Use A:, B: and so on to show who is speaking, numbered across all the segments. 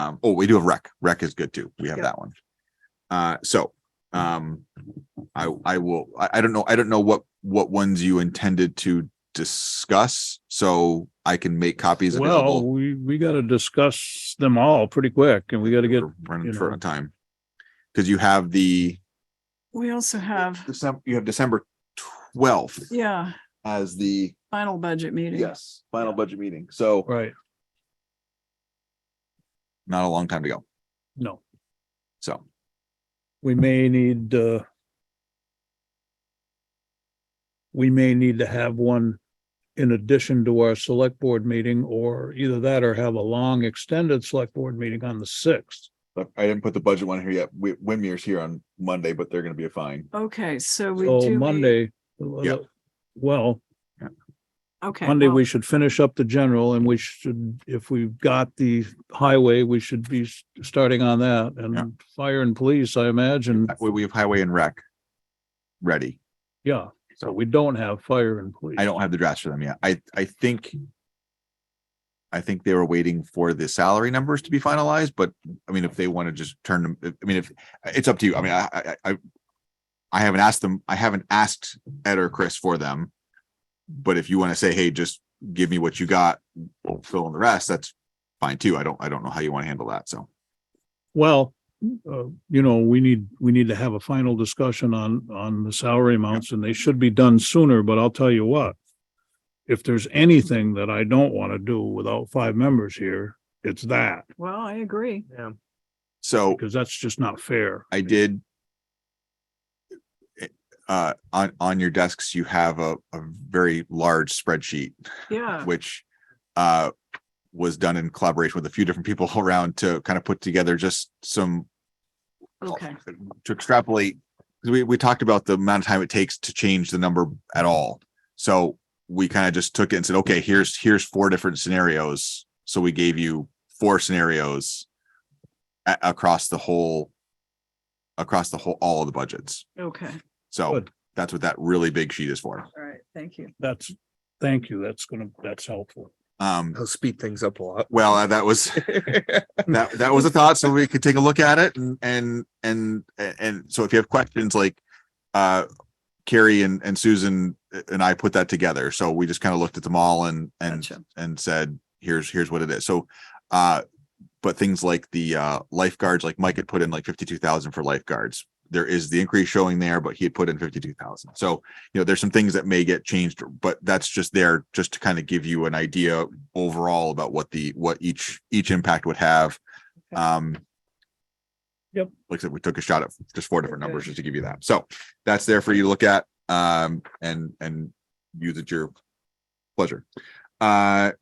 A: Um, oh, we do have rec. Rec is good too. We have
B: Yeah. Hmm.
A: that one. Uh, so, um, I, I will, I, I don't know, I don't know what, what ones you intended to discuss, so I can make copies
C: Well,
A: available.
C: we, we gotta discuss them all pretty quick and we gotta get,
A: We're Running
C: you
A: short
C: know.
A: on time. Cause you have the,
B: We also have,
A: December, you have December twelfth
B: yeah,
A: as the,
B: final budget meeting.
A: yes, final budget meeting. So
C: right,
A: not a long time to go.
C: no,
A: So,
C: we may need, uh, we may need to have one in addition to our select board meeting or either that or have a long extended select board meeting on the sixth.
A: but I didn't put the budget one here yet. Wi- Windmere's here on Monday, but they're gonna be a fine.
B: Okay, so we
C: So
B: do. need-
C: Monday, uh,
A: Yeah.
C: well,
B: Okay.
C: Monday,
B: well,
C: we should finish up the general and we should, if we've got the highway, we should be s- starting on that
A: Yeah.
C: and fire and police, I imagine.
A: That way We have highway and rec. Ready.
C: Yeah, so we don't have fire and police.
A: I don't have the drafts for them yet. I, I think. I think they were waiting for the salary numbers to be finalized, but I mean, if they want to just turn them, I mean, if, it's up to you. I mean, I, I, I. I haven't asked them, I haven't asked Ed or Chris for them. But if you want to say, hey, just give me what you got, we'll fill in the rest, that's fine too. I don't, I don't know how you want to handle that, so.
C: Well, uh, you know, we need, we need to have a final discussion on, on the salary amounts and they should be done sooner, but I'll tell you what. If there's anything that I don't want to do without five members here, it's that,
B: Well, I agree.
A: So.
C: because that's just not fair.
A: I did. Uh, on, on your desks, you have a, a very large spreadsheet,
B: Yeah,
A: which, uh, was done in collaboration with a few different people around to kind of put together just some
B: okay.
A: to extrapolate, 'cause we, we talked about the amount of time it takes to change the number at all. So we kind of just took it and said, okay, here's, here's four different scenarios. So we gave you four scenarios a- across the whole, across the whole, all of the budgets.
B: Okay.
A: So
C: Good.
A: that's what that really big sheet is for.
B: All right. Thank you.
C: That's, thank you. That's gonna, that's helpful.
A: Um,
D: I'll speed things up a lot.
A: well, uh, that was, that, that was a thought. So we could take a look at it and, and, and, and so if you have questions like, uh, Carrie and, and Susan uh, and I put that together. So we just kind of looked at them all and, and,
B: Gotcha.
A: and said, here's, here's what it is. So, uh, but things like the, uh, lifeguards, like Mike had put in like fifty-two thousand for lifeguards. There is the increase showing there, but he had put in fifty-two thousand. So, you know, there's some things that may get changed, but that's just there just to kind of give you an idea overall about what the, what each, each impact would have.
B: Okay.
A: Um.
C: Yep.
A: Like I said, we took a shot at just four different numbers
B: Okay.
A: just to give you that. So that's there for you to look at, um, and, and use at your pleasure. Uh,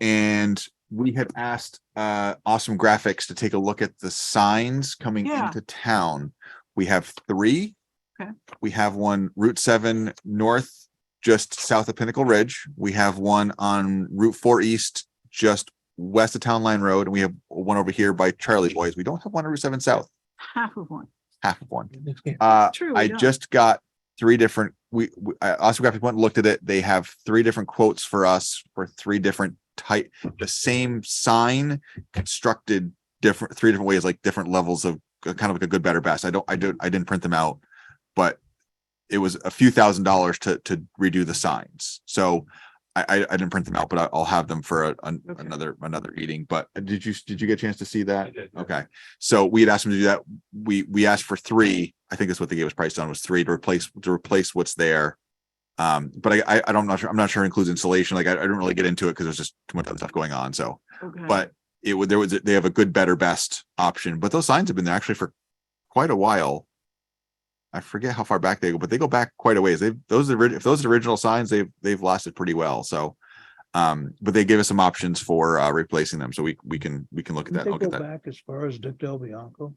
A: and we had asked, uh, Awesome Graphics to take a look at the signs coming
B: Yeah.
A: into town. We have three.
B: Okay.
A: We have one Route seven north, just south of Pinnacle Ridge. We have one on Route four east, just west of Town Line Road, and we have one over here by Charlie Boys. We don't have one on Route Seven South,
B: Half of one.
A: half of one. Uh,
B: True. we
A: I
B: don't.
A: just got three different, we, we- I also graphic went and looked at it. They have three different quotes for us for three different type, the same sign constructed different, three different ways, like different levels of uh, kind of like a good, better, best. I don't, I don't, I didn't print them out, but it was a few thousand dollars to, to redo the signs. So I, I, I didn't print them out, but I- I'll have them for a- an-
B: Okay.
A: another, another meeting. But did you, did you get a chance to see that? Okay, so we had asked them to do that. We, we asked for three. I think that's what they gave us priced on was three to replace, to replace what's there. Um, but I, I, I don't, I'm not sure, I'm not sure it includes insulation. Like I, I didn't really get into it because there's just too much other stuff going on. So,
B: Okay.
A: but it would, there was, they have a good, better, best option, but those signs have been there actually for quite a while. I forget how far back they go, but they go back quite a ways. They've, those are, the orig- if those are the original signs, they've, they've lasted pretty well. So, um, but they gave us some options for, uh, replacing them. So we, we can, we can look at
C: Didn't
A: that.
C: they
A: Look
C: go
A: at that.
C: back as far as Dick Del Bianco?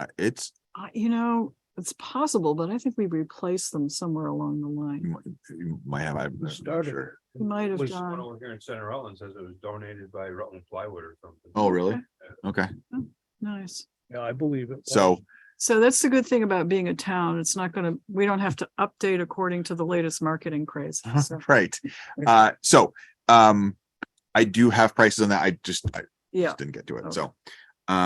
A: Uh, It's,
B: I- You know, it's possible, but I think we replaced them somewhere along the
A: You
B: line.
A: might- you might have, I'm
C: Who
A: not
C: started
A: sure.
C: it?
B: We might have
C: Was-
E: One
B: done.
E: over here in Center Rutland says it was donated by Rutland Plywood or something.
A: Oh, really? Okay,
B: Nice.
C: Yeah, I believe it. was.
A: so,
B: So that's the good thing about being a town. It's not going to, we don't have to update according to the latest marketing craze. So,
A: right, uh, so, um, I do have prices on that, I just, I
B: Yeah.
A: just didn't get to it,
B: Okay.
A: so.